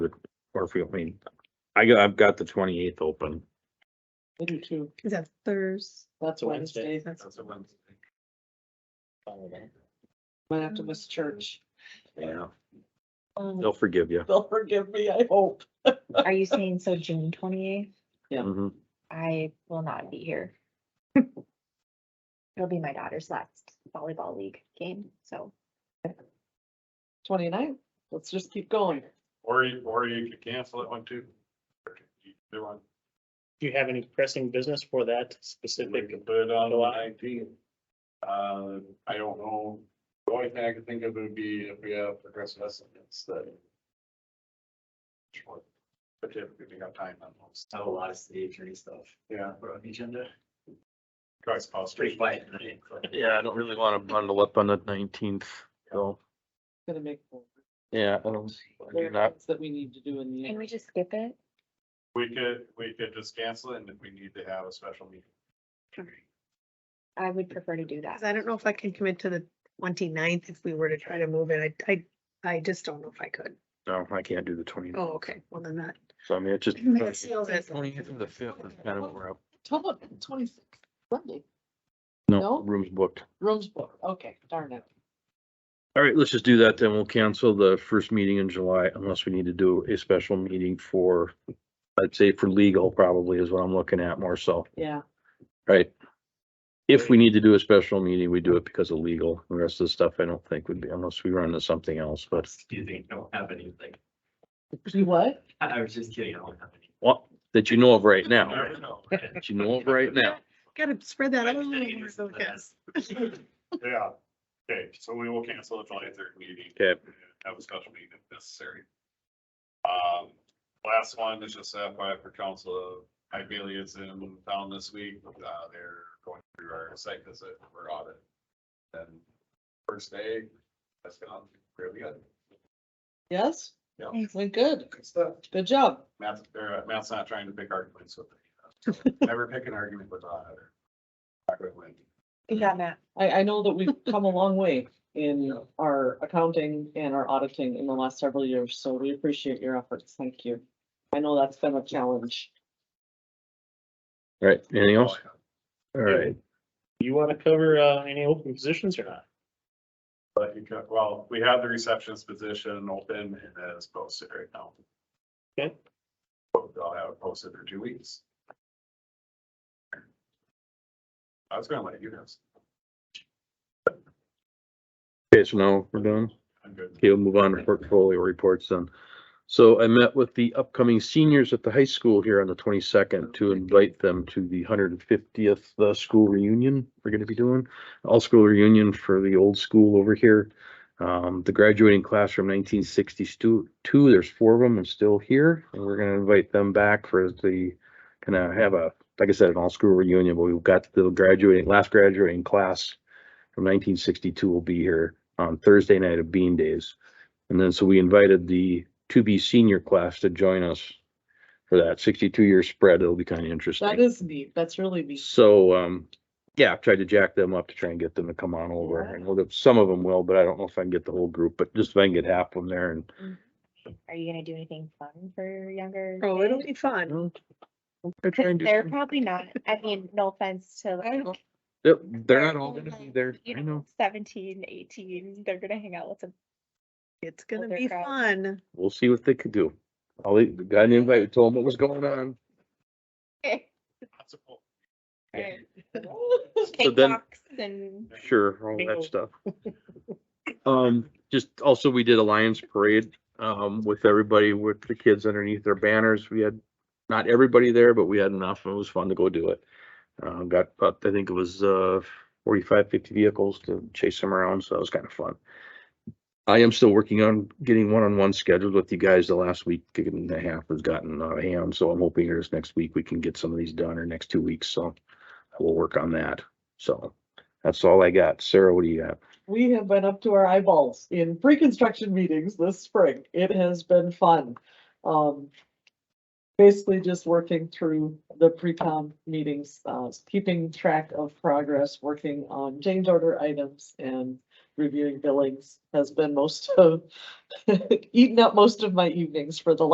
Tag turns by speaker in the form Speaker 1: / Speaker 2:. Speaker 1: or if we, I mean, I got, I've got the twenty eighth open.
Speaker 2: I do too.
Speaker 3: Is that Thursday?
Speaker 2: That's
Speaker 4: Wednesday.
Speaker 2: Wednesday.
Speaker 3: That's-
Speaker 4: a Wednesday. Holiday.
Speaker 2: Might have to miss church.
Speaker 1: Yeah. They'll
Speaker 2: They'll
Speaker 1: forgive you.
Speaker 2: forgive me, I hope.
Speaker 5: Are you saying so June twenty eighth?
Speaker 2: Yeah.
Speaker 1: Mhm.
Speaker 5: I will not be here. It'll be my daughter's last volleyball league game, so
Speaker 2: Twenty nine, let's just keep going.
Speaker 4: Or you, or you could cancel that one too. Do one,
Speaker 6: Do you have any pressing business for that
Speaker 4: we
Speaker 6: specific?
Speaker 4: can put it on the
Speaker 6: July.
Speaker 4: nineteenth. Uh, I don't know, the only thing I can think of would be if we have progressive estimates that. But if we got time on those,
Speaker 7: have a lot of city attorney stuff
Speaker 4: yeah.
Speaker 7: put on the agenda.
Speaker 4: Guys,
Speaker 7: It's pretty
Speaker 4: possibly.
Speaker 7: quiet tonight. but-
Speaker 1: Yeah, I don't really wanna bundle up on the nineteenth, so,
Speaker 2: Gonna make. more.
Speaker 1: yeah, um, I don't,
Speaker 2: There are
Speaker 1: not,
Speaker 2: things That we need to do in the.
Speaker 5: can we
Speaker 2: end.
Speaker 5: just skip it?
Speaker 4: We could, we could just cancel it and if we need to have a special meeting.
Speaker 5: I would prefer to do
Speaker 3: 'Cause
Speaker 5: that.
Speaker 3: I don't know if I can commit to the 29th if we were to try to move it. I, I, I just don't know if I could.
Speaker 1: no, I can't do the twenty.
Speaker 3: Oh, okay, well then that.
Speaker 1: So I mean, it's just.
Speaker 3: That seals it.
Speaker 1: Twenty eighth and the fifth is kind of where I,
Speaker 2: Tell them twenty six, Monday, No?
Speaker 1: no, room's booked.
Speaker 2: rooms booked, okay, darn it.
Speaker 1: All right, let's just do that then. We'll cancel the first meeting in July unless we need to do a special meeting for, I'd say for legal probably is what I'm looking at more so,
Speaker 2: Yeah,
Speaker 1: right? If we need to do a special meeting, we do it because of legal. The rest of the stuff I don't think would be unless we run into something else, but
Speaker 7: Do you think I don't have anything?
Speaker 2: you what?
Speaker 7: I I was just kidding. I don't have anything.
Speaker 1: what, that you know of right
Speaker 7: I
Speaker 1: now,
Speaker 7: don't know.
Speaker 1: that you know of right now.
Speaker 3: Gotta spread that out a
Speaker 7: I'm
Speaker 3: little
Speaker 7: kidding,
Speaker 3: more,
Speaker 7: it's
Speaker 3: though,
Speaker 7: not-
Speaker 3: guys.
Speaker 4: Yeah, okay, so we will cancel the July third meeting.
Speaker 1: Okay.
Speaker 4: Have a special meeting if necessary. Um, last one is just FYI for council, Ibelia is in town this week, uh, they're going through our site visit for audit. And first day, that's gone really good.
Speaker 2: Yes?
Speaker 4: Yeah.
Speaker 2: Went good,
Speaker 4: Good stuff.
Speaker 2: good job.
Speaker 4: Matt's, or uh, Matt's not trying to pick arguments with me. Never pick an argument with the auditor. Not gonna win.
Speaker 5: Good job, Matt.
Speaker 2: I, I know that we've come a long way in our accounting and our auditing in the last several years, so we appreciate your efforts. Thank you. I know that's been a challenge.
Speaker 1: All right, anything else? All right,
Speaker 6: You want to cover uh, any open positions or not?
Speaker 4: But you could, well, we have the receptionist position open and that is posted right now.
Speaker 6: Okay.
Speaker 4: But I'll have it posted for two weeks. I was gonna let you guys,
Speaker 1: okay, so now we're done.
Speaker 4: I'm good.
Speaker 1: Okay, we'll move on to portfolio reports then. So I met with the upcoming seniors at the high school here on the twenty-second to invite them to the hundred and fiftieth, uh, school reunion we're gonna be doing. All-school reunion for the old school over here. Um, the graduating class from nineteen sixty-two, there's four of them and still here, and we're gonna invite them back for the, kind of have a, like I said, an all-school reunion, but we've got the graduating, last graduating class from nineteen sixty-two will be here on Thursday night of Bean Days. And then, so we invited the to be senior class to join us for that sixty-two year spread. It'll be kind of
Speaker 2: That
Speaker 1: interesting.
Speaker 2: is neat. That's really neat.
Speaker 1: So, um, yeah, I've tried to jack them up to try and get them to come on over. And we'll get, some of them will, but I don't know if I can get the whole group, but just if I can get half of them there and
Speaker 5: Are you gonna do anything fun for younger?
Speaker 3: Oh, it'll be fun.
Speaker 1: Well, They're trying to.
Speaker 5: They're probably not. I mean, no offense to like.
Speaker 1: They're, they're not all gonna be there.
Speaker 5: you
Speaker 1: I know.
Speaker 5: 17, 18, they're gonna hang out with them.
Speaker 3: It's gonna
Speaker 5: Older
Speaker 3: be
Speaker 5: crowd.
Speaker 3: fun.
Speaker 1: We'll see what they could do. All they, got an invite, we told them what was going on.
Speaker 5: Cake
Speaker 1: then-
Speaker 5: walks and.
Speaker 1: Sure, all
Speaker 6: Bingo.
Speaker 1: that stuff. Um, just also, we did a Lions Parade, um, with everybody, with the kids underneath their banners. We had not everybody there, but we had enough. and It was fun to go do it. Uh, got, about I think it was, uh, 45, 50 vehicles to chase them around, so that was kind of fun. I am still working on getting one-on-one scheduled with you guys. The last week and a half has gotten out of hand, so I'm hoping here this next week we can get some of these done or next two weeks, so we'll work on that. So that's all I got. Sarah, what do you got?
Speaker 2: We have been up to our eyeballs in pre-construction meetings this spring. It has been fun. Um, basically just working through the pre-com meetings, uh, keeping track of progress, working on change order items and reviewing billings has been most of, eaten up most of my evenings for the